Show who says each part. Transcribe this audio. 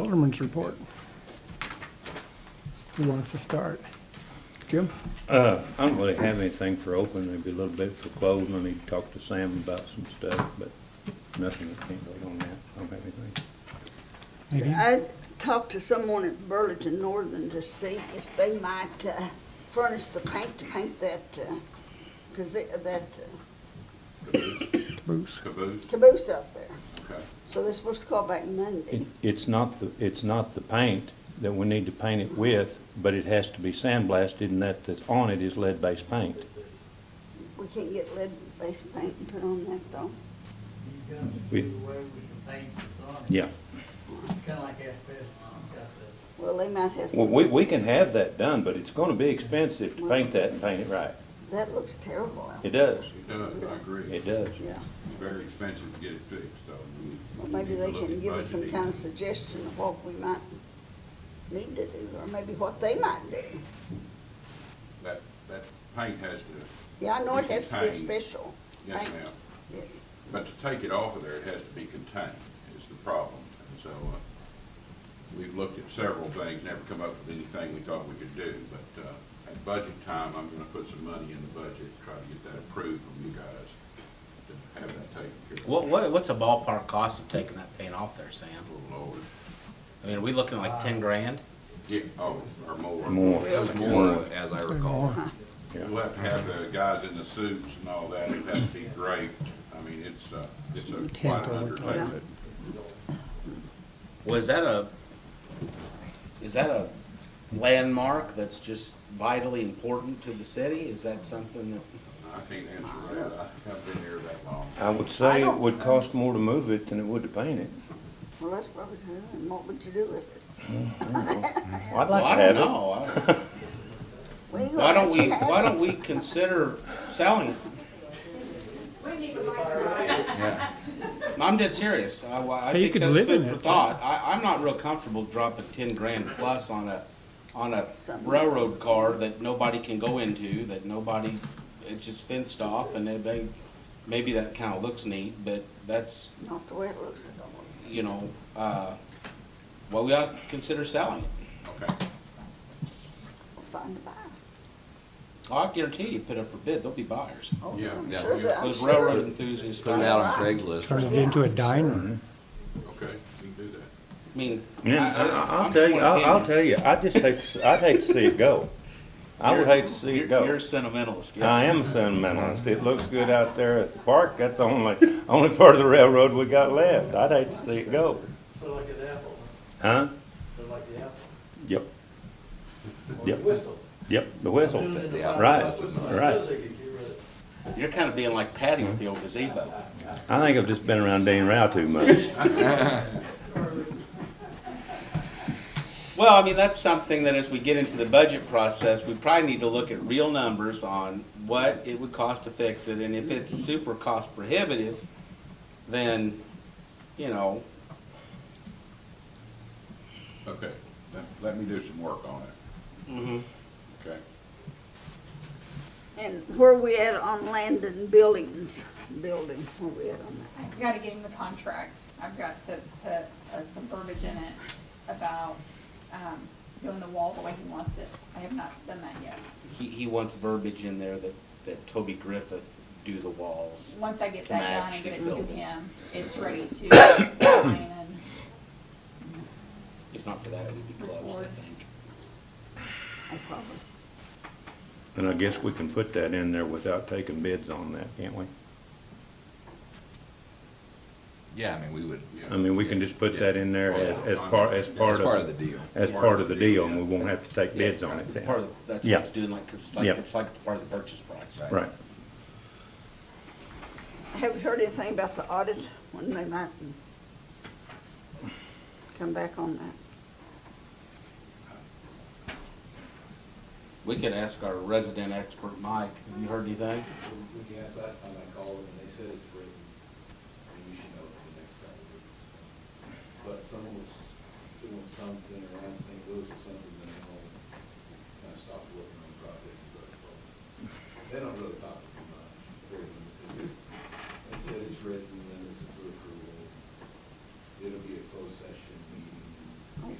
Speaker 1: Alderman's report. Who wants to start? Jim?
Speaker 2: Uh, I don't really have anything for open, maybe a little bit for closed, I need to talk to Sam about some stuff, but nothing, I can't wait on that, I don't have anything.
Speaker 1: Maybe.
Speaker 3: I talked to someone at Burlington Northern to see if they might uh, furnish the paint to paint that, because that uh,
Speaker 1: Bruce?
Speaker 4: Caboose,
Speaker 3: caboose up there.
Speaker 4: okay.
Speaker 3: So they're supposed to call back Monday.
Speaker 2: It, it's not the, it's not the paint that we need to paint it with, but it has to be sandblasted, and that that's on it is lead-based paint.
Speaker 3: We can't get lead-based paint and put on that, though.
Speaker 5: You've got
Speaker 2: We-
Speaker 5: to do away with the paint that's on it.
Speaker 2: Yeah.
Speaker 5: Kind of like asbestos, you've got to.
Speaker 3: Well, they might have
Speaker 2: Well,
Speaker 3: some,
Speaker 2: we, we can have that done, but it's gonna be expensive to paint that and paint it right.
Speaker 3: that looks terrible out
Speaker 2: It
Speaker 3: there.
Speaker 2: does,
Speaker 4: It does, I agree.
Speaker 2: it does.
Speaker 3: Yeah,
Speaker 4: It's very expensive to get it fixed, so. we need-
Speaker 3: well,
Speaker 4: we
Speaker 3: maybe
Speaker 4: need to
Speaker 3: they
Speaker 4: look
Speaker 3: can
Speaker 4: at
Speaker 3: give us some
Speaker 4: budgeting.
Speaker 3: kind of suggestion of what we might need to do, or maybe what they might do.
Speaker 4: That, that paint has to,
Speaker 3: Yeah, I know it
Speaker 4: We can
Speaker 3: has to be a
Speaker 4: paint.
Speaker 3: special
Speaker 4: yes
Speaker 3: paint,
Speaker 4: ma'am,
Speaker 3: yes.
Speaker 4: but to take it off of there, it has to be contained, is the problem. And so, uh, we've looked at several things, never come up with anything we thought we could do, but, uh, at budget time, I'm gonna put some money in the budget, try to get that approved from you guys, to have that taken care of.
Speaker 6: What, what, what's a ballpark cost of taking that paint off there, Sam?
Speaker 4: Oh, Lord,
Speaker 6: I mean, are we looking like ten grand?
Speaker 4: yeah, oh, or more.
Speaker 2: More.
Speaker 7: It was more, as I recall.
Speaker 4: We'll have to have the guys in the suits and all that, it'd have to be draped, I mean, it's, uh, it's a
Speaker 1: Can't
Speaker 4: quite
Speaker 1: do
Speaker 4: an
Speaker 1: it.
Speaker 4: undertaking.
Speaker 6: Was that a, is that a landmark that's just vitally important to the city? Is that something that,
Speaker 4: I can't answer that, I haven't been here that long.
Speaker 2: I would
Speaker 3: I
Speaker 2: say it
Speaker 3: don't-
Speaker 2: would cost more to move it than it would to paint it.
Speaker 3: Well, that's probably true, and what would you do with it?
Speaker 2: Well, I'd
Speaker 6: well,
Speaker 2: like
Speaker 6: I
Speaker 2: to have it.
Speaker 6: don't know. I-
Speaker 3: Well, you
Speaker 6: Why
Speaker 3: gotta
Speaker 6: don't
Speaker 3: let
Speaker 6: we,
Speaker 3: you have
Speaker 6: why
Speaker 3: it.
Speaker 6: don't we consider selling it? No, I'm dead serious. I, I
Speaker 1: Hey, you
Speaker 6: think
Speaker 1: could
Speaker 6: that's
Speaker 1: live in it,
Speaker 6: food for
Speaker 1: too.
Speaker 6: thought. I, I'm not real comfortable dropping ten grand plus on a, on a
Speaker 3: Something.
Speaker 6: railroad car that nobody can go into, that nobody, it's just fenced off and then they, maybe that kinda looks neat, but that's,
Speaker 3: Not the way it looks.
Speaker 6: you know, uh, well, we ought to consider selling it.
Speaker 4: Okay,
Speaker 3: We'll find a buyer.
Speaker 6: I guarantee you, put up for bid, there'll be buyers.
Speaker 3: Oh,
Speaker 4: Yeah,
Speaker 3: I'm
Speaker 4: yeah.
Speaker 3: sure that- I'm
Speaker 6: Those
Speaker 3: sure-
Speaker 6: railroad enthusiasts.
Speaker 7: Put it out on Craigslist.
Speaker 1: Turn it into a diner.
Speaker 4: okay, we can do that.
Speaker 6: I mean, I,
Speaker 2: Yeah,
Speaker 6: I,
Speaker 2: I- I'll
Speaker 6: I'm
Speaker 2: tell
Speaker 6: just
Speaker 2: you,
Speaker 6: one
Speaker 2: I'll, I'll
Speaker 6: opinion.
Speaker 2: tell you, I just hate, to s- I'd hate to see it go. I would
Speaker 6: You're-
Speaker 2: hate to see it
Speaker 6: you're- You're
Speaker 2: go.
Speaker 6: a sentimentalist. yeah.
Speaker 2: I am a sentimentalist. It looks good out there at the park. That's the only, only part of the railroad we got left. I'd hate to see it go.
Speaker 5: Sort of like an apple,
Speaker 2: Huh?
Speaker 5: sort of like the apple.
Speaker 2: Yep,
Speaker 5: or
Speaker 2: Yep.
Speaker 5: the whistle.
Speaker 2: yep, the
Speaker 5: Doing it in the
Speaker 7: Yeah,
Speaker 5: fire,
Speaker 2: right,
Speaker 5: that's what's supposed to
Speaker 2: right.
Speaker 5: get you rid of it.
Speaker 6: You're kind of being like Patty with the old gazebo.
Speaker 2: I think I've just been around Dan Rao too much.
Speaker 6: Well, I mean, that's something that as we get into the budget process, we probably need to look at real numbers on what it would cost to fix it, and if it's super cost prohibitive, then, you know,
Speaker 4: Okay, let, let me do some work on it,
Speaker 6: mhm.
Speaker 4: okay?
Speaker 3: And where we at on land and buildings, building, where we at on
Speaker 8: I've got to get him the contract. I've got to put uh, some verbiage in it about um, doing the wall the way he wants it. I have not done that yet.
Speaker 6: he, he wants verbiage in there that, that Toby Griffith do the walls.
Speaker 8: Once I get that done
Speaker 6: Match
Speaker 8: and get
Speaker 6: his
Speaker 8: it to
Speaker 6: building.
Speaker 8: him, it's ready to sign and
Speaker 6: If not for that, it would be gloves, I think.
Speaker 3: that? No problem.
Speaker 2: And I guess we can put that in there without taking bids on that, can't we?
Speaker 7: Yeah, I mean, we would,
Speaker 4: Yeah.
Speaker 2: I mean, we can just put that in there as, as part, as
Speaker 7: as
Speaker 2: part
Speaker 7: part of
Speaker 2: of,
Speaker 7: the deal.
Speaker 2: as part of the deal, and we won't have to take bids on it
Speaker 6: It's
Speaker 2: then.
Speaker 6: part of, the- that's
Speaker 2: Yeah.
Speaker 6: what it's doing, like, it's like,
Speaker 2: Yeah.
Speaker 6: it's like it's part of the purchase price.
Speaker 2: Right.
Speaker 3: Have you heard anything about the audit, when they might come back on that?
Speaker 6: We could ask our resident expert, Mike, have you heard anything?
Speaker 9: We can ask last time I called them, and they said it's written, and you should know it for the next couple of weeks. But someone was doing something around St. Louis or something, and they all kind of stopped working on the project. but They don't really talk